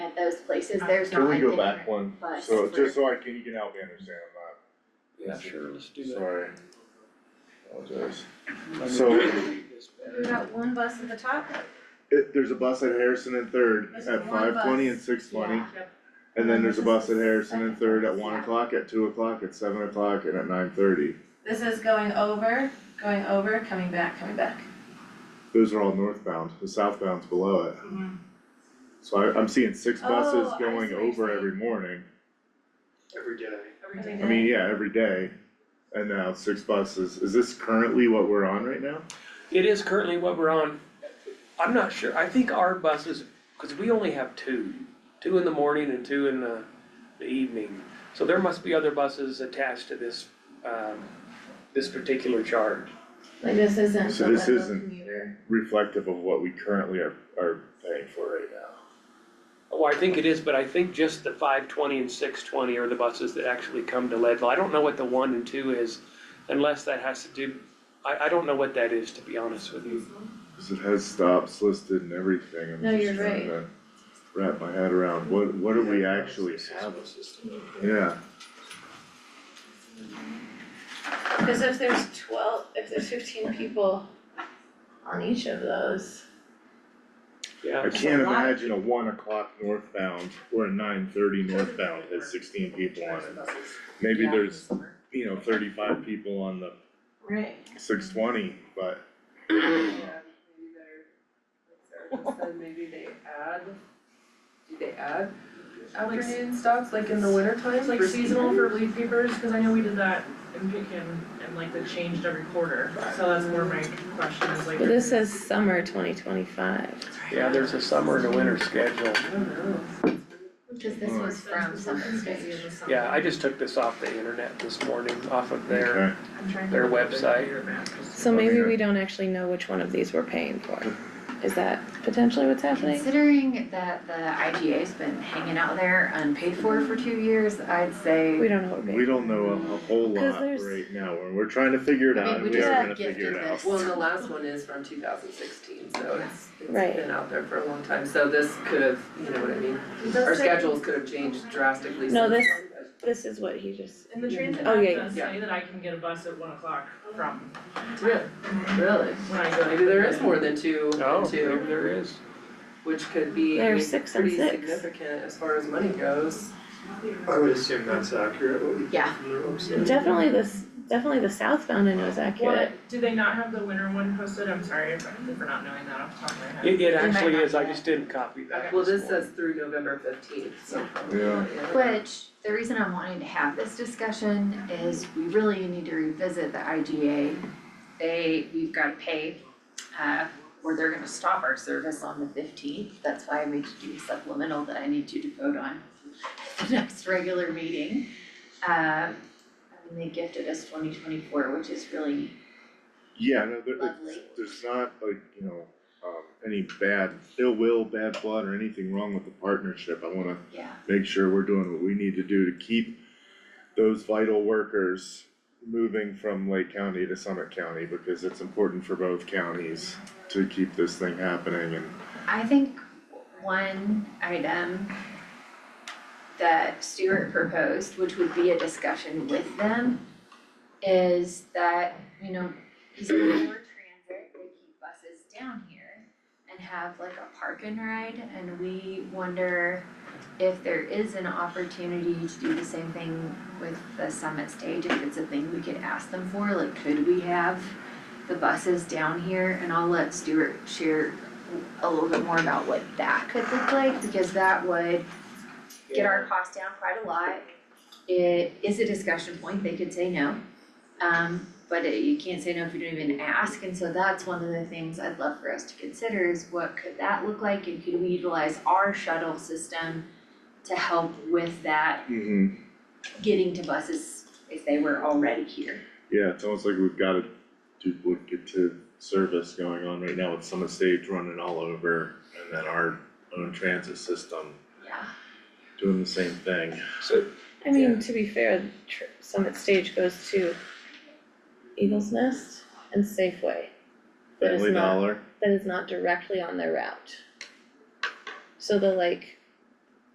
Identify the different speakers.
Speaker 1: at those places, there's not
Speaker 2: Can
Speaker 1: a
Speaker 2: we
Speaker 1: different
Speaker 2: go back one,
Speaker 1: bus
Speaker 2: so just
Speaker 1: for-
Speaker 2: so I can, you can help me understand,
Speaker 3: Yeah, sure, let's do
Speaker 2: I'm not,
Speaker 3: that.
Speaker 2: sorry. Apologize.
Speaker 3: Let me
Speaker 2: So-
Speaker 3: read this
Speaker 4: We
Speaker 3: better.
Speaker 4: got one bus at the top,
Speaker 2: It, there's a bus at Harrison and Third
Speaker 4: There's
Speaker 2: at
Speaker 4: one
Speaker 2: five twenty
Speaker 4: bus.
Speaker 2: and six twenty,
Speaker 1: Yeah.
Speaker 2: and then there's a bus at Harrison and Third at one
Speaker 4: Yeah.
Speaker 2: o'clock, at two o'clock, at seven o'clock, and at nine thirty.
Speaker 4: this is going over, going over, coming back, coming back.
Speaker 2: Those are all northbound, the southbound's below it.
Speaker 4: Mhm.
Speaker 2: So I, I'm seeing six
Speaker 4: Oh,
Speaker 2: buses
Speaker 4: I see what
Speaker 2: going
Speaker 4: you're
Speaker 2: over
Speaker 4: saying.
Speaker 2: every morning,
Speaker 5: every day.
Speaker 4: Every
Speaker 2: I mean, yeah, every day. And now six buses, is this currently what we're on right now?
Speaker 3: It is currently what we're on. I'm not sure, I think our buses, because we only have two, two in the morning and two in the, the evening. So there must be other buses attached to this, um, this particular charge.
Speaker 4: Like this isn't
Speaker 2: So
Speaker 4: the
Speaker 2: this
Speaker 4: Leadville
Speaker 2: isn't
Speaker 4: commuter.
Speaker 2: reflective of what we currently are, are paying for right now.
Speaker 3: Well, Oh, I think it is, but I think just the five twenty and six twenty are the buses that actually come to Leadville. I don't know what the one and two is, unless that has to do, I, I don't know what that is, to be honest with you.
Speaker 2: Cause it has stops listed and everything,
Speaker 4: No,
Speaker 2: I'm just
Speaker 4: you're
Speaker 2: trying to wrap my head around, what, what do we actually have? Yeah,
Speaker 4: Cause if there's twelve, if there's fifteen people on each of those,
Speaker 3: Yeah.
Speaker 2: I can't
Speaker 4: a lot.
Speaker 2: imagine a one o'clock northbound or a nine thirty northbound has sixteen people on it. Maybe
Speaker 4: Yeah.
Speaker 2: there's, you know, thirty-five people on the
Speaker 4: right,
Speaker 2: six twenty, but
Speaker 6: Yeah, maybe they're, like Sarah just said, maybe they add, do they add afternoon stops, like in the winter times,
Speaker 7: Like seasonal for leaf peepers, cause I know we did that in Pekin and like they changed every quarter, so that's where my question is like.
Speaker 4: but this says summer twenty twenty-five.
Speaker 3: Yeah, there's a summer and a winter schedule.
Speaker 6: I don't know.
Speaker 1: Cause this was from Summer Stage.
Speaker 3: Yeah, I just took this off the internet this morning, off of their,
Speaker 2: okay,
Speaker 3: their website.
Speaker 4: So maybe we don't actually know which one of these we're paying for. Is that potentially what's happening?
Speaker 1: Considering that the IGA's been hanging out there unpaid for for two years, I'd say.
Speaker 4: We don't know what we're paying.
Speaker 2: we don't know a a whole
Speaker 4: Cause
Speaker 2: lot
Speaker 4: there's-
Speaker 2: right now, and we're trying to figure it
Speaker 1: I mean,
Speaker 2: out,
Speaker 1: we
Speaker 2: and we
Speaker 1: just
Speaker 2: are
Speaker 1: got
Speaker 2: gonna figure
Speaker 1: gifted
Speaker 2: it out.
Speaker 1: this.
Speaker 6: Well, and the last one is from two thousand sixteen, so it's, it's
Speaker 4: Right.
Speaker 6: been out there for a long time, so this could have, you know what I mean?
Speaker 7: It does
Speaker 6: Our
Speaker 7: say-
Speaker 6: schedules could have changed drastically since.
Speaker 4: No, this- This is what he just,
Speaker 7: In the transit
Speaker 4: Oh,
Speaker 7: app
Speaker 4: yeah,
Speaker 7: does say that I can get a bus at one o'clock from
Speaker 6: Really, really,
Speaker 7: when I go. to-
Speaker 6: maybe there is more than two,
Speaker 3: Oh,
Speaker 6: than
Speaker 3: maybe
Speaker 6: two,
Speaker 3: there is.
Speaker 6: which could be
Speaker 4: There are six and
Speaker 6: pretty
Speaker 4: six.
Speaker 6: significant as far as money goes.
Speaker 5: I would assume that's accurate, what we get
Speaker 1: Yeah.
Speaker 5: from their website.
Speaker 4: definitely this, definitely the southbound end was accurate.
Speaker 7: What, do they not have the winter one posted? I'm sorry if- for not knowing that off the top of my head.
Speaker 3: It, it
Speaker 1: might
Speaker 3: actually
Speaker 1: not
Speaker 3: is, I
Speaker 1: be.
Speaker 3: just didn't copy that.
Speaker 6: Well,
Speaker 3: this
Speaker 6: this
Speaker 3: morning.
Speaker 6: says through November fifteenth, so probably.
Speaker 2: Yeah.
Speaker 6: not yet.
Speaker 1: Which, the reason I'm wanting to have this discussion is we really need to revisit the IGA. They, we've gotta pay, uh, or they're gonna stop our service on the fifteenth, that's why I made you do a supplemental that I need you to vote on at the next regular meeting. Uh, and they gifted us twenty twenty-four, which is really
Speaker 2: Yeah, no, there, it's,
Speaker 1: Lovely.
Speaker 2: there's not like, you know, um, any bad, ill will, bad blood or anything wrong with the partnership. I wanna
Speaker 1: Yeah.
Speaker 2: make sure we're doing what we need to do to keep those vital workers moving from Lake County to Summit County because it's important for both counties to keep this thing happening and
Speaker 1: I think one item that Stuart proposed, which would be a discussion with them, is that, you know, these are more transit, they keep buses down here and have like a park and ride, and we wonder if there is an opportunity to do the same thing with the summit stage, if it's a thing we could ask them for, like, could we have the buses down here? And I'll let Stuart share a little bit more about what that could look like, because that would get our costs down quite a lot. It is a discussion point, they could say no, um, but it- you can't say no if you don't even ask, and so that's one of the things I'd love for us to consider is what could that look like, and could we utilize our shuttle system to help with that, getting to buses if they were already here?
Speaker 2: Yeah, it's almost like we've got a duplicative service going on right now with Summit Stage running all over and then our own transit system
Speaker 1: Yeah.
Speaker 2: doing the same thing.
Speaker 3: So,
Speaker 4: I
Speaker 3: Yeah.
Speaker 4: mean, to be fair, tr- Summit Stage goes to Eagles Nest and Safeway. That is
Speaker 2: Family
Speaker 4: not-
Speaker 2: Dollar,
Speaker 4: That is not directly on their route. So the like